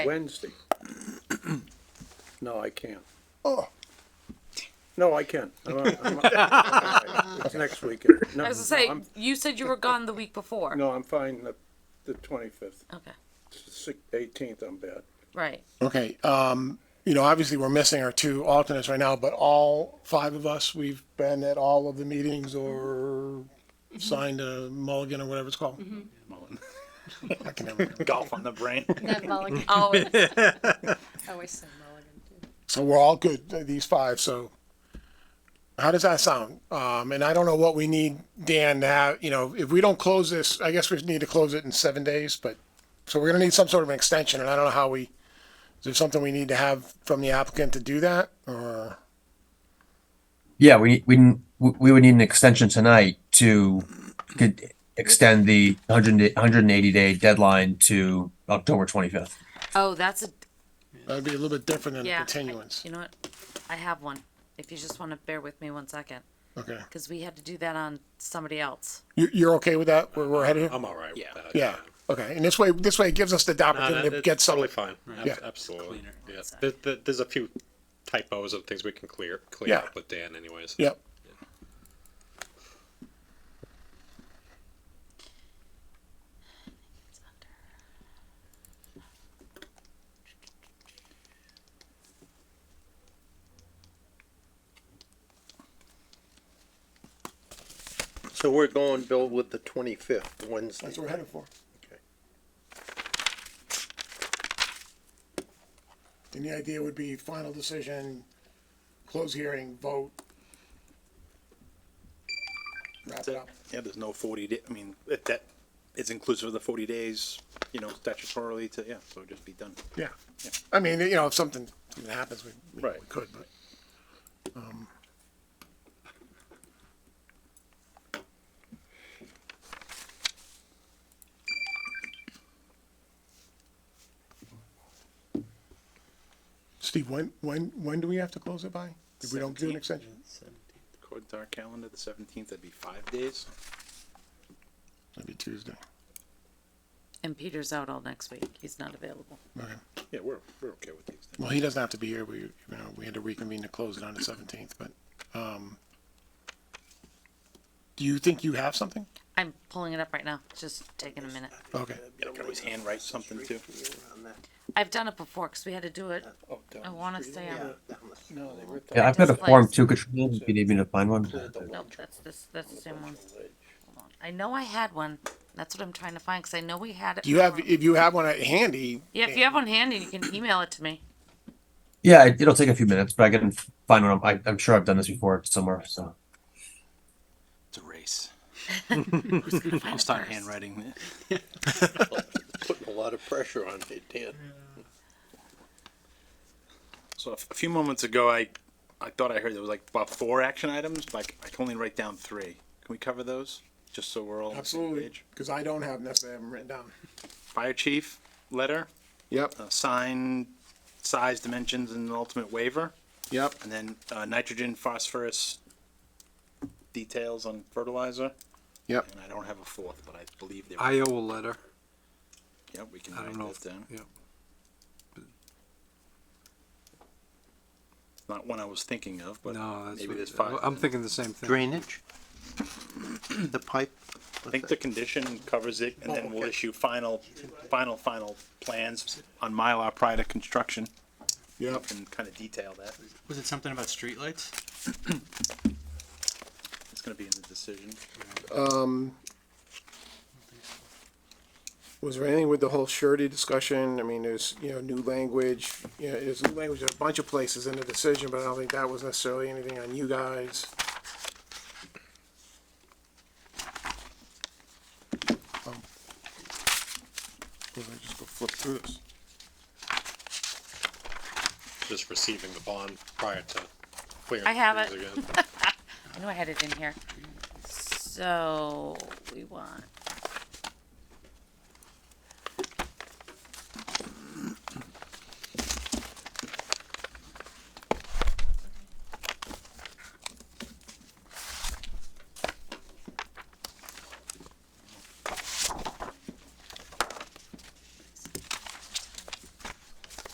Wednesday. No, I can't. Oh. No, I can. I'm on- I'm on- It's next weekend. No, I was gonna say, no, I'm- you said you were gone the week before. No, I'm fine the, the twenty-fifth, Okay, eighteenth, I'm bad. right. Okay, um, you know, obviously we're missing our two alternates right now, but all five of us, we've been at all of the meetings or signed a mulligan or whatever it's called. Mm-hmm. I can never remember. golf on the brain. Ned Mulligan. Always. I always say Mulligan too. So we're all good, uh, these five, so. How does that sound? Um, and I don't know what we need, Dan, to have, you know, if we don't close this, I guess we need to close it in seven days, but, so we're gonna need some sort of an extension, and I don't know how we, is there something we need to have from the applicant to do that, or? Yeah, we, we, we would need an extension tonight to could extend the 100 180 day deadline to October 25th. Oh, that's a, That'd be a little bit different than a yeah. I- continuance. You know what? I have one. If you just wanna bear with me one second, Okay. cause we had to do that on somebody else. You, you're okay with that? Where we're headed? I'm all right with that. Yeah. Okay. And this way, this way it gives us the No, that- opportunity to that's get some, totally fine. Ab- Yeah. Absolutely. Cleaner. Yeah. There, there- there's a few typos and things we can clear, clear Yeah. up with Dan anyways. yep. So we're going, Bill, with the twenty-fifth, Wednesday. That's what we're headed for. Okay. Then the idea would be final decision, close hearing, vote. Wrap it up. Yeah, there's no forty day, I mean, it- that, it's inclusive of the forty days, you know, statutorily to, yeah, so just be done. Yeah. I mean, you know, if something, something happens, we, we Right. could, but. um, Steve, when, when, when do we have to close it by? If we don't do an extension? According to our calendar, the seventeenth, that'd be five days. That'd be Tuesday. And Peter's out all next week. He's not available. Okay. Yeah, we're, we're okay with the extension. Well, he doesn't have to be here. We, you know, we had to reconvene to close it on the seventeenth, but, um, do you think you have something? I'm pulling it up right now. It's just taking a minute. Okay. Yeah, I can always handwrite something too. I've done it before, cause we had to do it. I wanna say, on Yeah, I've got a form Displaced. too, Katrina, if you need me to find one. no, that's this, that's the same one. Hold on. I know I had one. That's what I'm trying to find, cause I know we had it. Do you have, before. if you have one at handy? Yeah, if you have one handy, you can email it to me. Yeah, it- it'll take a few minutes, but I can find one. I, I'm sure I've done this before somewhere, so. It's a race. Find I'll it start first. handwriting. Putting a lot of pressure on it, Dan. So a f- a few moments ago, I, I thought I heard there was like about four action items, like I can only write down three. Can we cover those? Just so we're all on the same Absolutely, page. because I don't have necessarily have them written down. Fire chief, letter, Yep, uh, sign, size, dimensions, and ultimate waiver. yep. And then uh, nitrogen, phosphorus, details on fertilizer. Yep. And I don't have a fourth, but I believe there. Iowa letter. Yep, we can I write don't know. that if- down. Yeah. Not one I was thinking of, but No, that's maybe what, there's five. I'm thinking the same thing. Drainage? The pipe? I think the condition covers it, and then we'll issue final, final, final plans on Mylar prior to construction. Yep. And kind of detail that. Was it something about streetlights? It's gonna be in the decision. Was there anything with the whole surety discussion? I mean, there's, you know, new language, you know, there's new language in a bunch of places in the decision, but I don't think that was necessarily anything on you guys. Um, Was I just go flip through this? Just receiving the bond prior to clearing. I have things it. again. I knew I had it in here. So we want